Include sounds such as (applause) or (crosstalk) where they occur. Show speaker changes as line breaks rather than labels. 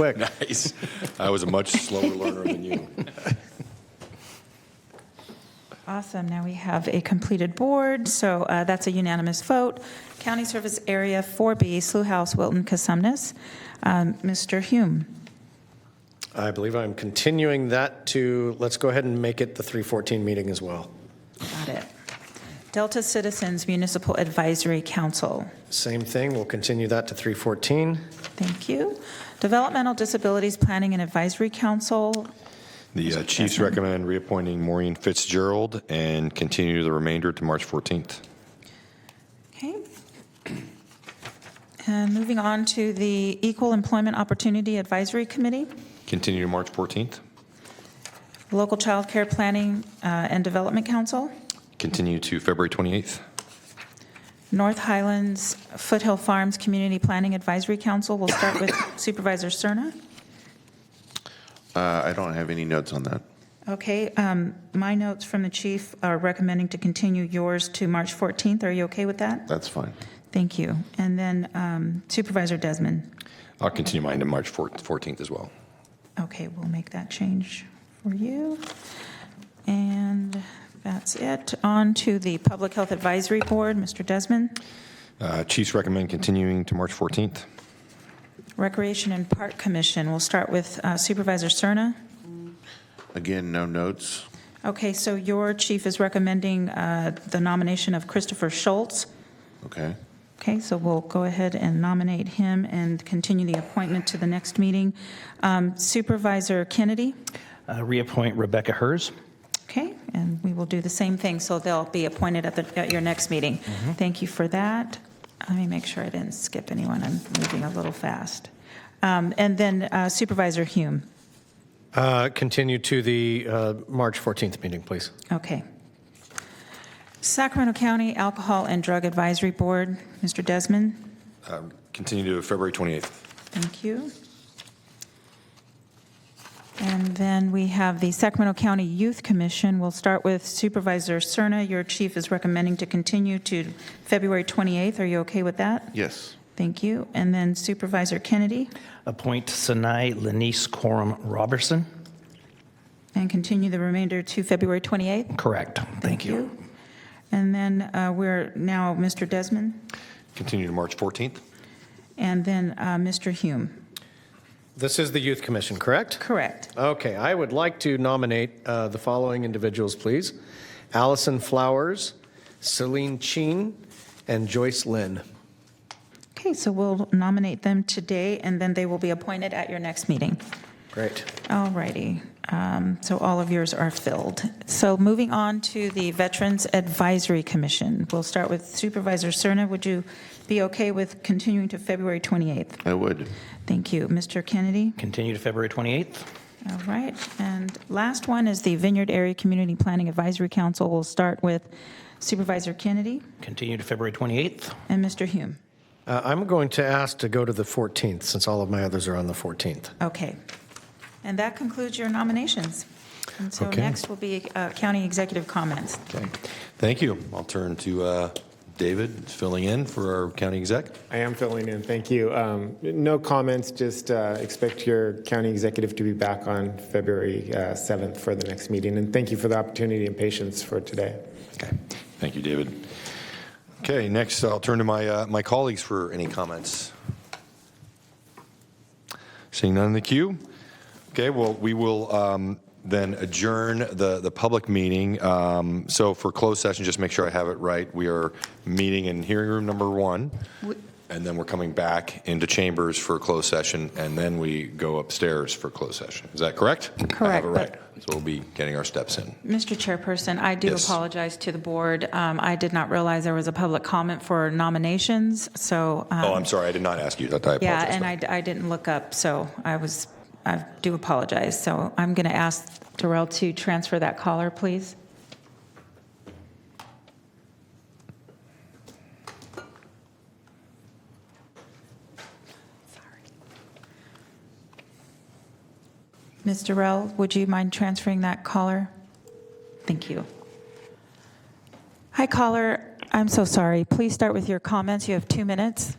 Quick.
Nice. I was a much slower learner than you.
Awesome. Now we have a completed board, so uh, that's a unanimous vote. County Service Area 4B, Slough House, Wilton, Casumnes. Um, Mr. Hume,
I believe I'm continuing that to, let's go ahead and make it the 314 meeting as well.
got it. Delta Citizens Municipal Advisory Council,
Same thing, we'll continue that to 314.
thank you. Developmental Disabilities Planning and Advisory Council,
(laughs) The uh, Chiefs recommend reappointing Maureen Fitzgerald and continue the remainder to March 14th.
okay. (clears throat) And moving on to the Equal Employment Opportunity Advisory Committee,
Continue to March 14th.
Local Child Care Planning uh, and Development Council,
Continue to February 28th.
North Highlands Foothill Farms Community Planning Advisory Council. We'll start with Supervisor Cerna.
Uh, I don't have any notes on that.
Okay, um, my notes from the chief are recommending to continue yours to March 14th. Are you okay with that?
That's fine.
Thank you. And then um, Supervisor Desmond.
I'll continue mine to March 4- 14th as well.
Okay, we'll make that change for you. And that's it. On to the Public Health Advisory Board, Mr. Desmond.
Uh, Chiefs recommend continuing to March 14th.
Recreation and Park Commission, we'll start with uh, Supervisor Cerna.
Again, no notes.
Okay, so your chief is recommending uh, the nomination of Christopher Schultz.
Okay.
Okay, so we'll go ahead and nominate him and continue the appointment to the next meeting. Um, Supervisor Kennedy,
Uh, Reappoint Rebecca Hers.
okay, and we will do the same thing, so they'll be appointed at the, at your next meeting. Thank you for that. Let me make sure I didn't skip anyone, I'm moving a little fast. Um, And then uh, Supervisor Hume,
Uh, Continue to the uh, March 14th meeting, please.
okay. Sacramento County Alcohol and Drug Advisory Board, Mr. Desmond?
Uh, Continue to February 28th.
Thank you. And then we have the Sacramento County Youth Commission. We'll start with Supervisor Cerna. Your chief is recommending to continue to February 28th. Are you okay with that?
Yes.
Thank you. And then Supervisor Kennedy,
Appoint Sinai Lenice Corum Robertson.
and continue the remainder to February 28th.
Correct. Thank you.
And then uh, we're now Mr. Desmond,
Continue to March 14th.
and then uh, Mr. Hume.
This is the Youth Commission, correct?
Correct.
Okay, I would like to nominate uh, the following individuals, please. Allison Flowers, Celine Cheen, and Joyce Lynn.
Okay, so we'll nominate them today, and then they will be appointed at your next meeting.
Great.
All righty. Um, So all of yours are filled. So moving on to the Veterans Advisory Commission. We'll start with Supervisor Cerna. Would you be okay with continuing to February 28th?
I would.
Thank you. Mr. Kennedy?
Continue to February 28th.
All right. And last one is the Vineyard Area Community Planning Advisory Council. We'll start with Supervisor Kennedy
Continue to February 28th.
and Mr. Hume.
Uh, I'm going to ask to go to the 14th, since all of my others are on the 14th.
Okay. And that concludes your nominations. And so
Okay.
next will be uh, county executive comments.
Okay. Thank you. I'll turn to uh, David filling in for our county exec.
I am filling in, thank you. Um, No comments, just uh, expect your county executive to be back on February uh, 7th for the next meeting, and thank you for the opportunity and patience for today.
Okay. Thank you, David. Okay, next I'll turn to my, uh, my colleagues for any comments. Seeing none in the queue? Okay, well, we will um, then adjourn the, the public meeting. Um, So for closed session, just make sure I have it right. We are meeting in hearing room number one, and then we're coming back into chambers for closed session, and then we go upstairs for closed session. Is that correct? I have
Correct,
it
but-
right. So we'll be getting our steps in.
Mr. Chairperson, I do
Yes.
apologize to the board. Um, I did not realize there was a public comment for nominations, so. um,
Oh, I'm sorry, I did not ask you that. I apologize.
Yeah,
for
and
that.
I I didn't look up, so I was, I do apologize. So I'm going to ask Darrell to transfer that caller, please. Ms. Darrell, would you mind transferring that caller? Thank you. Hi, caller. I'm so sorry. Please start with your comments. You have two minutes.